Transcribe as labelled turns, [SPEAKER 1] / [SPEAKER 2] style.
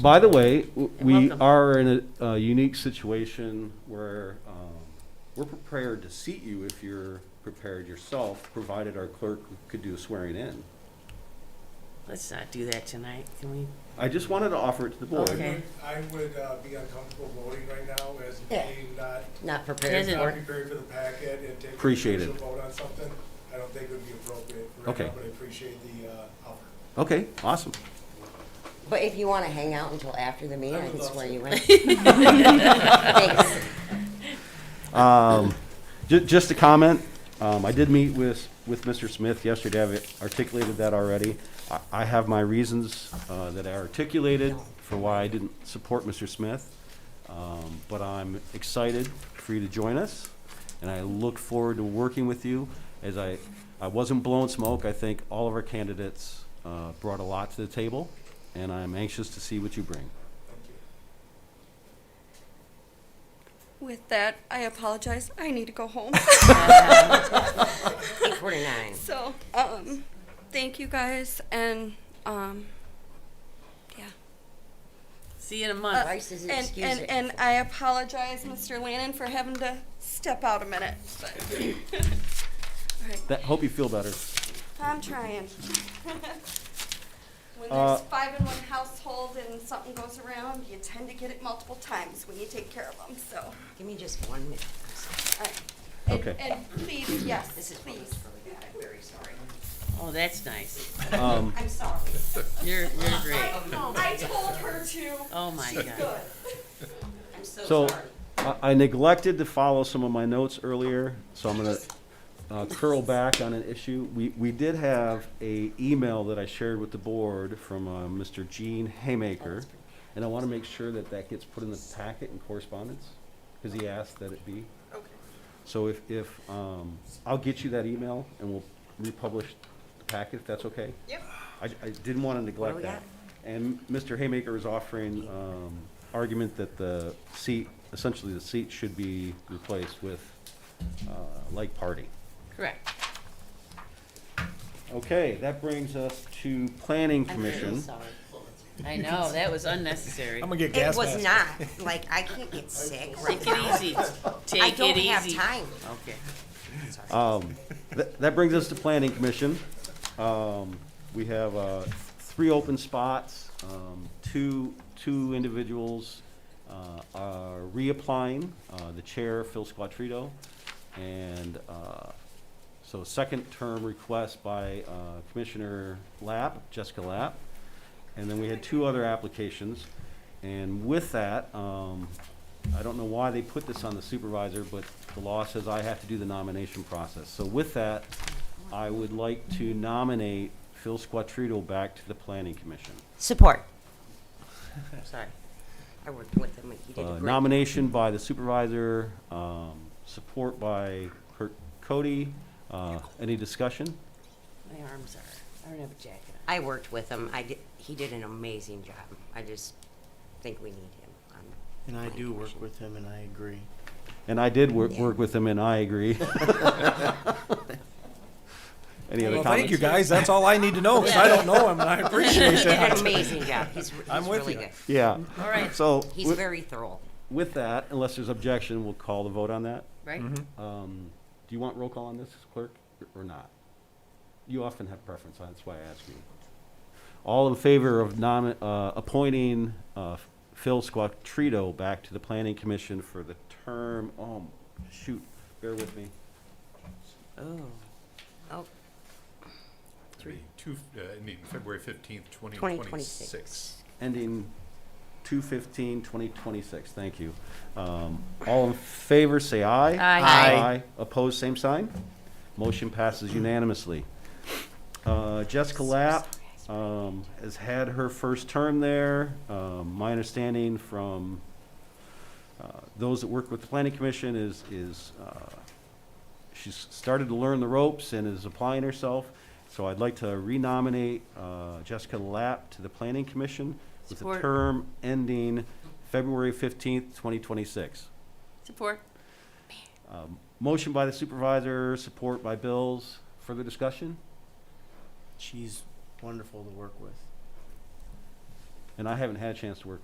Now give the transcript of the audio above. [SPEAKER 1] By the way, w- we
[SPEAKER 2] welcome.
[SPEAKER 1] are in a, a unique situation where, um, we're prepared to seat you if you're prepared yourself, provided our clerk could do a swearing in.
[SPEAKER 2] Let's not do that tonight, can we?
[SPEAKER 1] I just wanted to offer it to the board.
[SPEAKER 2] Okay.
[SPEAKER 3] I would uh, be uncomfortable voting right now as
[SPEAKER 4] Yeah.
[SPEAKER 3] being not,
[SPEAKER 4] Not prepared
[SPEAKER 2] Doesn't-
[SPEAKER 4] for
[SPEAKER 3] not
[SPEAKER 4] it.
[SPEAKER 3] prepared for the packet and taking
[SPEAKER 1] Appreciate it.
[SPEAKER 3] a vote on something. I don't think it would be appropriate right
[SPEAKER 1] Okay.
[SPEAKER 3] now, but I appreciate the uh, offer.
[SPEAKER 1] Okay, awesome.
[SPEAKER 4] But if you want to hang out until after the meeting,
[SPEAKER 3] I
[SPEAKER 4] I
[SPEAKER 3] would
[SPEAKER 4] can
[SPEAKER 3] love
[SPEAKER 4] swear
[SPEAKER 3] to.
[SPEAKER 4] you in. Thanks.
[SPEAKER 1] Um, ju- just a comment, um, I did meet with, with Mr. Smith yesterday, I've articulated that already. I, I have my reasons, uh, that I articulated for why I didn't support Mr. Smith. Um, but I'm excited for you to join us, and I look forward to working with you. As I, I wasn't blowing smoke, I think all of our candidates, uh, brought a lot to the table, and I'm anxious to see what you bring.
[SPEAKER 3] Thank you.
[SPEAKER 5] With that, I apologize. I need to go home.
[SPEAKER 4] Eight forty-nine.
[SPEAKER 5] so, um, thank you guys, and um, yeah.
[SPEAKER 2] See you in a
[SPEAKER 5] Uh,
[SPEAKER 2] month.
[SPEAKER 4] Bryce is
[SPEAKER 5] and,
[SPEAKER 4] excused.
[SPEAKER 5] and and I apologize, Mr. Lannon, for having to step out a minute. But All right,
[SPEAKER 1] That, hope you feel better.
[SPEAKER 5] I'm trying. when there's
[SPEAKER 1] Uh,
[SPEAKER 5] five in one household and something goes around, you tend to get it multiple times when you take care of them. So, all
[SPEAKER 4] Give me just one minute. I'm sorry.
[SPEAKER 5] right. And,
[SPEAKER 1] Okay.
[SPEAKER 5] and please, yes,
[SPEAKER 4] This is
[SPEAKER 5] please.
[SPEAKER 4] please. I'm very sorry.
[SPEAKER 2] Oh, that's nice.
[SPEAKER 1] Um,
[SPEAKER 4] I'm sorry.
[SPEAKER 2] You're, you're great.
[SPEAKER 5] I told her to.
[SPEAKER 2] Oh, my
[SPEAKER 5] She's
[SPEAKER 2] God.
[SPEAKER 5] good.
[SPEAKER 4] I'm
[SPEAKER 1] So,
[SPEAKER 4] so sorry.
[SPEAKER 1] I I neglected to follow some of my notes earlier, so I'm gonna uh, curl back on an issue. We, we did have a email that I shared with the board from uh, Mr. Gene Haymaker, and I wanna make sure that that gets put in the packet in correspondence, because he asked that it be.
[SPEAKER 5] Okay.
[SPEAKER 1] So if, if, um, I'll get you that email and we'll republish the packet, if that's okay?
[SPEAKER 5] Yep.
[SPEAKER 1] I, I didn't want to
[SPEAKER 4] What do
[SPEAKER 1] neglect
[SPEAKER 4] we
[SPEAKER 1] that.
[SPEAKER 4] got?
[SPEAKER 1] And Mr. Haymaker is offering, um, argument that the seat, essentially the seat should be replaced with, uh, like party.
[SPEAKER 2] Correct.
[SPEAKER 1] Okay, that brings us to planning
[SPEAKER 4] I'm very
[SPEAKER 1] commission.
[SPEAKER 4] sorry.
[SPEAKER 2] I know, that was unnecessary.
[SPEAKER 3] get
[SPEAKER 4] It was not, like, I can't get sick right
[SPEAKER 2] Take it
[SPEAKER 4] now.
[SPEAKER 2] easy.
[SPEAKER 4] I
[SPEAKER 2] Take it
[SPEAKER 4] don't have
[SPEAKER 2] easy.
[SPEAKER 4] time.
[SPEAKER 2] Okay.
[SPEAKER 1] Um, that, that brings us to planning commission. Um, we have, uh, three open spots, um, two, two individuals, uh, are reapplying, uh, the chair, Phil Squattrito, and, uh, so second term request by, uh, Commissioner Lapp, Jessica Lapp. And then we had two other applications, and with that, um, I don't know why they put this on the supervisor, but the law says I have to do the nomination process. So with that, I would like to nominate Phil Squattrito back to the planning commission.
[SPEAKER 4] Support.
[SPEAKER 2] I'm sorry.
[SPEAKER 4] I worked with him, he did a
[SPEAKER 1] Uh,
[SPEAKER 4] great.
[SPEAKER 1] Nomination by the supervisor, um, support by Kurt Cody. Uh, any discussion?
[SPEAKER 2] My arms are, I don't have a jacket on.
[SPEAKER 4] I worked with him, I did, he did an amazing job. I just think we need him. on-
[SPEAKER 6] And I
[SPEAKER 4] Planning
[SPEAKER 6] do work
[SPEAKER 4] Commission.
[SPEAKER 6] with him, and I agree.
[SPEAKER 1] And I did work, work with him and I agree. Any other
[SPEAKER 7] Well,
[SPEAKER 1] comments?
[SPEAKER 7] thank you guys. That's all I need to
[SPEAKER 4] Oh,
[SPEAKER 7] know because I don't know him and I
[SPEAKER 4] He
[SPEAKER 7] appreciate
[SPEAKER 4] did an
[SPEAKER 7] that.
[SPEAKER 4] amazing job, he's, he's
[SPEAKER 7] I'm with
[SPEAKER 4] really
[SPEAKER 7] you.
[SPEAKER 4] good.
[SPEAKER 1] Yeah,
[SPEAKER 2] All right,
[SPEAKER 1] so
[SPEAKER 4] He's
[SPEAKER 1] wi-
[SPEAKER 4] very thorough.
[SPEAKER 1] with that, unless there's objection, we'll call the vote on that.
[SPEAKER 2] right?
[SPEAKER 1] Um, do you want roll call on this, clerk, or not? You often have preference, that's why I ask you. All in favor of nom, uh, appointing, uh, Phil Squattrito back to the planning commission for the term, oh, shoot, bear with me.
[SPEAKER 2] Oh,
[SPEAKER 4] Oh,
[SPEAKER 8] Three, two, uh, I mean, February fifteenth, twenty
[SPEAKER 4] twenty
[SPEAKER 8] twenty-six.
[SPEAKER 4] twenty-six.
[SPEAKER 1] Ending 2026. thank you. Um, all in favor, say aye.
[SPEAKER 2] Aye.
[SPEAKER 6] Aye.
[SPEAKER 1] Opposed, same sign. Motion passes unanimously. Uh, Jessica Lapp, um, has had her first term there. Um, my understanding from, uh, those that work with the planning commission is, is, uh, she's started to learn the ropes and is applying herself. So I'd like to renominate, uh, Jessica Lapp to the planning commission with a
[SPEAKER 2] Support.
[SPEAKER 1] term ending February fifteenth, twenty twenty-six.
[SPEAKER 2] support.
[SPEAKER 1] Um, Motion by the supervisor, support by Bills. Further discussion?
[SPEAKER 6] She's wonderful to work with.
[SPEAKER 1] and I haven't had a chance to work